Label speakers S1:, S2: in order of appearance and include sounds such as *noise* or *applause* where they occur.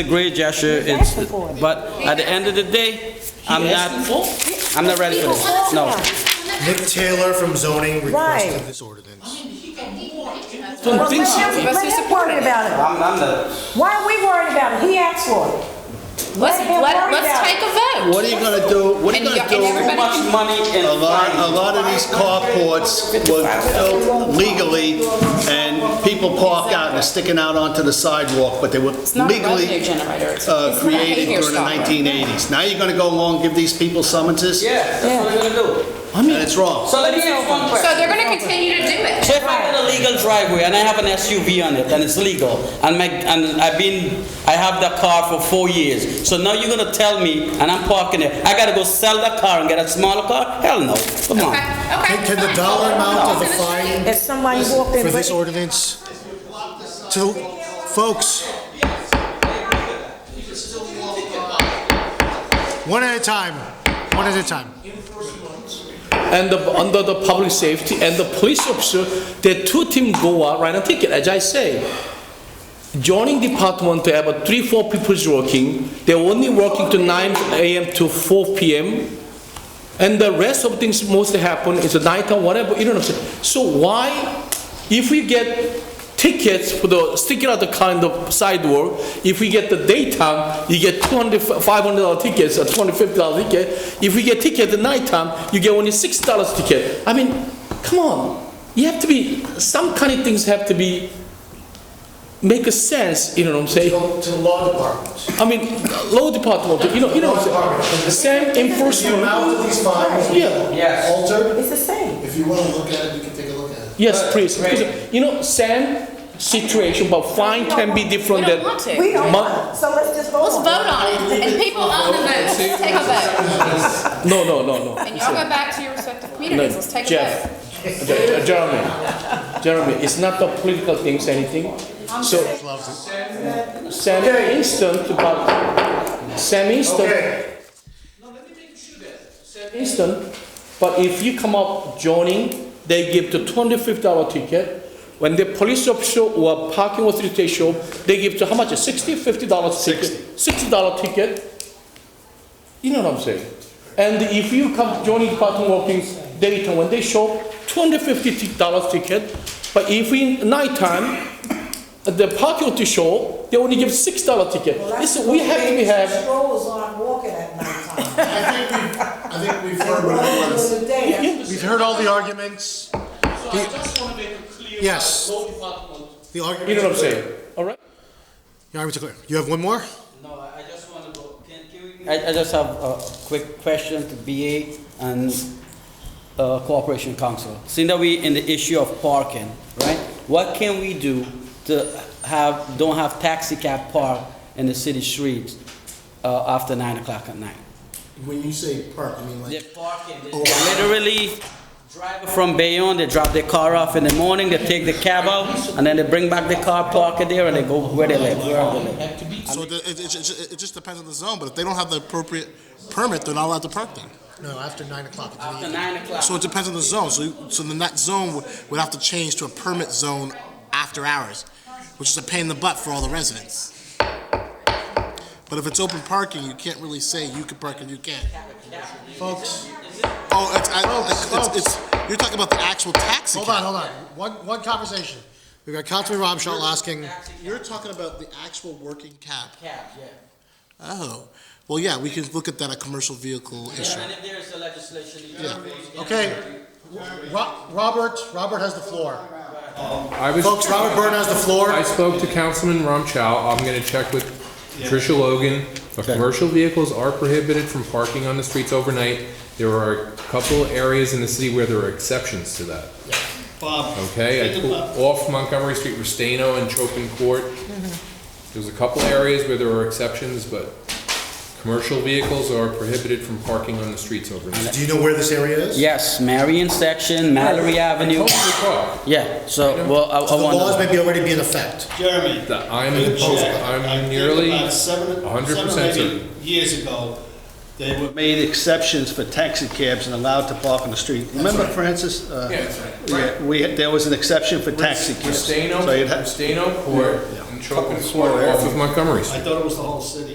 S1: a great gesture, it's,
S2: asking for it.
S1: but at the end of the day, I'm not, I'm not ready for this, no.
S3: Nick Taylor from zoning requested
S2: Right.
S3: this ordinance.
S2: Well, let him, let him worry about it.
S1: I'm, I'm the.
S2: Why are we worried about it? He asked for it.
S4: Let's,
S2: Let him
S4: let,
S2: worry
S4: let's
S2: about
S4: take
S2: it.
S4: a vote.
S5: What are you gonna do, what are you
S4: And
S5: gonna
S4: you- and
S5: do?
S1: Too
S4: everybody-
S1: much money and
S5: A lot, a
S1: fines.
S5: lot of these carports were built legally, and people park out and are sticking out onto the sidewalk, but they were
S4: It's not a revenue
S5: legally
S4: generator. It's,
S5: uh,
S4: it's not a
S5: created
S4: behavior
S5: during the
S4: stopper.
S5: 1980s. Now you're gonna go along, and give these people summonses?
S1: Yeah, that's what we're gonna do.
S5: And it's wrong.
S1: So let me ask one
S4: So
S1: question.
S4: they're going to continue to do it.
S1: If I had a legal driveway and I have an SUV on it and it's legal, and my, and I've been, I have that car for four years, so now you're gonna tell me, and I'm parking it, I gotta go sell that car and get a smaller car? Hell no, come
S4: Okay.
S1: on.
S4: Okay.
S3: Can- can the
S4: fine.
S3: dollar amount of the
S4: It's gonna
S3: fine
S4: change.
S2: If somebody walked in.
S3: For this
S2: with-
S3: ordinance, to, folks. One at a time, one at a time.
S6: and the, under the public safety and the police officer, the two team go out, write a ticket, as I say. Joining department to have a three, four people's working, they're only working to nine AM to four PM. And the rest of things mostly happen is at night or whatever, you know what I'm saying? So why, if we get tickets for the sticking out the car in the sidewalk, if we get the daytime, you get 200, 500 dollar tickets or 250 dollar ticket. If we get ticket at nighttime, you get only six dollars ticket. I mean, come on, you have to be, some kind of things have to be, make a sense, you know what I'm saying?
S3: the law department.
S6: I mean, law department, you know, you know, what I'm saying? same enforcement.
S3: amount of these fines
S6: Yeah.
S1: Yes.
S3: altered,
S2: It's the same.
S3: if you want to look at it, you can take a look at it.
S6: Yes, please,
S1: Right.
S6: because, you know, same situation, but fine can be
S4: We
S6: different
S4: don't
S6: than.
S4: want to.
S2: We don't
S6: Mon-
S2: want it, so let's just vote
S4: Let's
S2: on it.
S4: vote on it. And people own the vote. Let's take a vote.
S6: No, no,
S4: *laughs*
S6: no, no.
S4: And y'all go back to your respective
S6: No,
S4: communities. Let's take a vote.
S6: Jeff, Je- uh, Jeremy, Jeremy, it's not the political things, anything, so. Same instant, but, same instant, same instant, but if you come up joining, they give the twenty-five dollar ticket. When the police officer or parking authority show, they give to how much, sixty, fifty dollar ticket? Sixty dollar ticket, you know what I'm saying? And if you come joining Department of Workings daytime, when they show two hundred fifty dollars ticket, but if in nighttime, the parking lot to show, they only give six dollar ticket. Listen, we have to be have,
S2: Strollers aren't walking at nighttime.
S7: *laughs*
S3: I think we've
S2: They're
S3: heard what
S2: walking
S3: everyone's.
S2: during the day.
S3: We've heard all the arguments.
S6: So I just wanna make it clear.
S3: Yes.
S6: that law department-
S3: The
S6: You know what I'm
S3: arguments.
S6: saying, alright?
S3: The arguments are clear. You have one more?
S1: No, I I just want to go, can, can we? I, I just have a quick question to BA and uh, Corporation Council. Seeing that we in the issue of parking, right? What can we do to have, don't have taxi cab park in the city streets uh, after nine o'clock at night?
S3: When you say park, you mean
S1: They're parking, they literally drive from Bayonne, they drop their car off in the morning, they take the cab out, and then they bring back the car, park it there, and they go where they live, wherever they live.
S7: So the, it, it, it, it just depends on the zone, but if they don't have the appropriate permit, they're not allowed to park there.
S3: No, after nine o'clock. it's in the
S1: After
S3: evening.
S1: nine o'clock.
S7: So it depends on the zone. So, you- so then that zone would, would have to change to a permit zone after hours, which is a pain in the butt for all the residents. But if it's open parking, you can't really say you can park and you can't.
S3: Folks,
S7: Oh, it's, I, it's, it's, it's, you're talking about the actual taxi
S3: hold on,
S7: cab.
S3: hold on. One, one conversation. We've got Councilman Ramshaw asking,
S7: You're talking about the actual working cab. Cab, yeah. Oh, well, yeah, we could look at that, a commercial vehicle issue.
S1: And if there is a legislation, you
S3: okay, Ro- Robert, Robert has the floor. Folks, Robert Byrne has the floor.
S8: I spoke to Councilman Ramchow. I'm gonna check with Tricia Logan. But commercial vehicles are prohibited from parking on the streets overnight. There are a couple areas in the city where there are exceptions to that. Okay, I pulled off Montgomery Street, Restaino and Chopin Court. There's a couple areas where there are exceptions, but commercial vehicles are prohibited from parking on the streets overnight.
S3: Do you know where this area is?
S1: Yes, Marion Section, Mallory Avenue.
S8: Hopefully, Carl,
S1: Yeah, so, well, I,
S3: So
S1: I
S3: the laws
S1: want
S3: may be already be in effect.
S9: Jeremy,
S8: that I'm,
S9: I checked. I
S8: I'm
S9: think
S8: nearly
S9: about seven-
S8: 100%
S9: seven,
S8: certain.
S9: eight Years ago, they were
S5: Made exceptions for taxi cabs and allowed to park on the street. Remember Francis? Uh,
S8: Yeah, that's right.
S5: yeah, We, there was an exception for taxi cabs.
S8: Restaino,
S5: So you'd ha-
S8: Restaino Court, and
S10: choking off of Montgomery's.
S8: I thought it was the whole city.